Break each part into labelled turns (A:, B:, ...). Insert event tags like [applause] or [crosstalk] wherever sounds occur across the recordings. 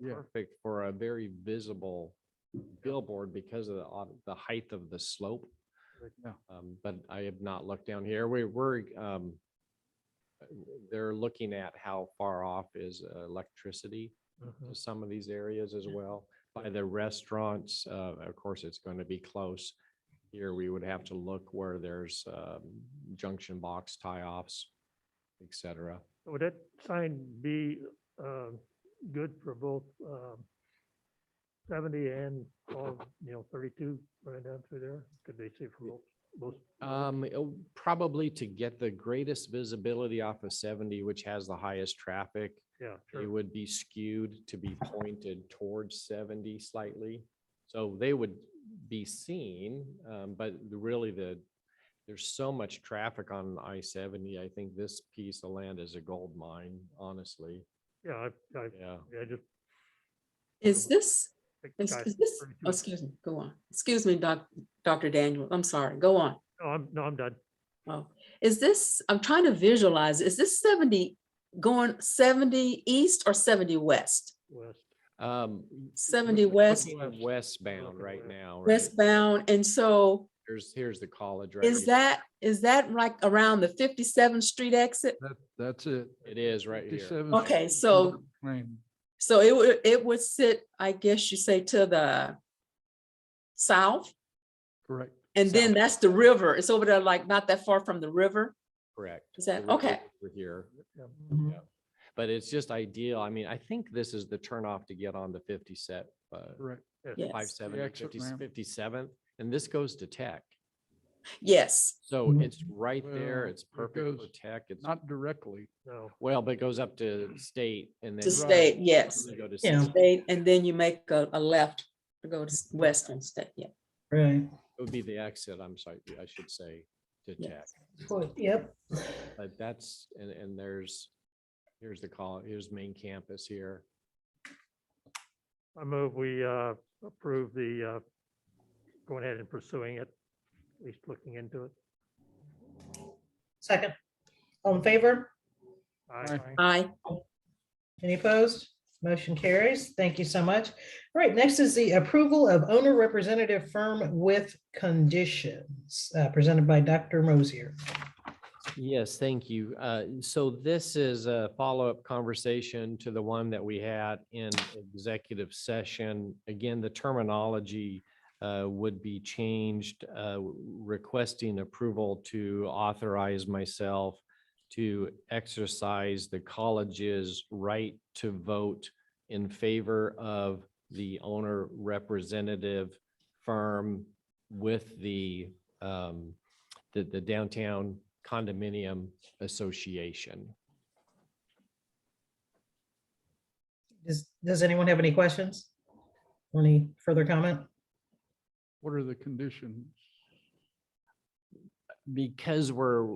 A: Yeah.
B: perfect for a very visible billboard because of the, ob- the height of the slope.
A: Yeah.
B: Um, but I have not looked down here. We were, um, they're looking at how far off is uh, electricity to some of these areas as well. By the restaurants, uh, of course, it's going to be close. Here, we would have to look where there's, um, junction box tie-offs, et cetera.
C: Would that sign be uh, good for both um, 70 and all, you know, 32 running down through there? Could they see from both?
B: Um, it'll- probably to get the greatest visibility off of seventy, which has the highest traffic.
C: Yeah,
B: They
C: sure.
B: would be skewed to be pointed towards seventy slightly. So they would be seen, um, but the- really the, there's so much traffic on I seventy. I think this piece of land is a gold mine, honestly.
C: Yeah, I, I,
B: Yeah.
C: I just.
D: Is this,
C: think
D: is
C: I-
D: is this, oh,
C: 32.
D: excuse me, go on. Excuse me, Doc, Dr. Daniel, I'm sorry, go on.
C: No, I'm, no, I'm done.
D: Oh, is this, I'm trying to visualize, is this 70 going 70 east or 70 west?
C: West.
B: Um. y-
D: 70
B: we're
D: west,
B: looking at Westbound
C: Looking
B: right
C: west.
B: now. right?
D: westbound. And so
B: Here's, here's the college. right
D: is
B: here.
D: that, is that like around the 57th Street exit?
A: That, that's it.
B: It is right here.
A: 57
D: Okay,
A: Street
D: so-
A: Lane.
D: So it would, it would sit, I guess you say to the south?
A: Correct.
D: And then
B: South.
D: that's the river. It's over there like not that far from the river?
B: Correct.
D: Is that,
B: We're-
D: okay.
B: We're here.
C: Yeah.
D: Mhm.
A: Mm-hmm.
B: Yeah. But it's just ideal. I mean, I think this is the turnoff to get on the fifty set, uh,
A: Correct.
B: five
D: Yes,
B: seventy,
A: exit
B: fifty,
A: ramp.
B: fifty seventh, and this goes to tech.
D: yes.
B: So
A: Mhm.
B: it's right there.
A: Well,
B: It's
A: it
B: perfect for
A: goes
B: tech. It's,
A: Not directly.
C: No,
B: well, but it goes up to state and then.
D: To
B: you
D: state, yes.
B: go to
E: Yeah.
B: 60.
D: State, and then you make a, a left to go to s- Western State, yeah.
E: Right.
B: It would be the exit, I'm sorry, I should say, to tech.
D: yes.
E: Yep.
B: But that's, and, and there's, here's the call, here's main campus here.
C: I move we uh, approve the, uh, going ahead and pursuing it, at least looking into it.
E: Second. All in favor?
C: Aye.
D: Aye,
E: Any opposed? Motion carries. Thank you so much. All right, next is the approval of owner representative firm with conditions uh, presented by Dr. Mosier.
B: Yes, thank you. Uh, So this is a follow-up conversation to the one that we had in executive session. Again, the terminology uh, would be changed, uh, requesting approval to authorize myself to exercise the college's right to vote in favor of the owner representative firm with the um, the, the downtown condominium association.
E: Does, does anyone have any questions? Or Any further comment?
A: What are the conditions?
B: Because we're,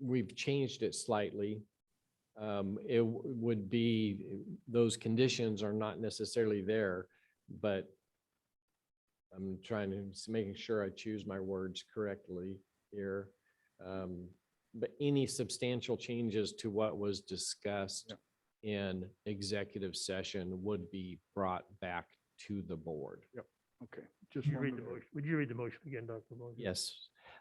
B: we've changed it slightly. Um, it w- would be, those conditions are not necessarily there, but I'm trying to, s- making sure I choose my words correctly here. Um, but any substantial changes to what was discussed
A: Yep.
B: in executive session would be brought back to the board.
A: Okay, just.
C: Would you read the
A: wondered.
C: motion? Would you read the motion again, Dr. Mosier?
B: Yes.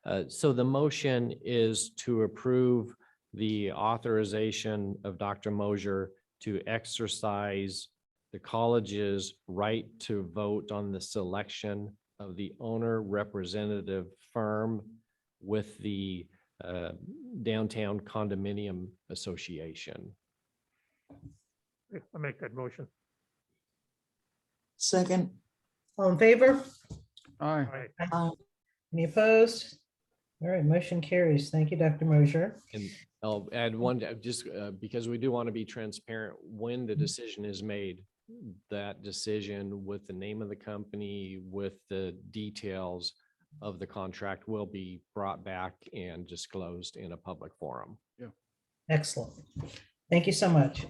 B: Uh, So the motion is to approve the authorization of Dr. Mosier to exercise the college's right to vote on the selection of the owner representative firm with the uh, Downtown Condominium Association.
C: I make that motion.
F: Second,
E: All in favor?
A: Aye.
C: Aye.
F: uh,
E: Any opposed? All right, motion carries. Thank you, Dr. Mosier.
B: And I'll add one, uh, just uh, because we do want to be transparent, when the decision is made, that decision with the name of the company, with the details of the contract will be brought back and disclosed in a public forum.
E: Excellent. Thank you so much.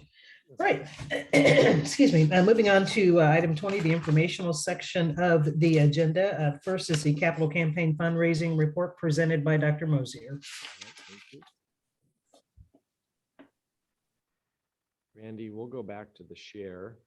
E: Right. [clears throat] Excuse me. Uh, Moving on to uh, item 20, the informational section of the agenda. Uh, First is the capital campaign fundraising report presented by Dr. Mosier.
B: Randy, we'll go back to the share.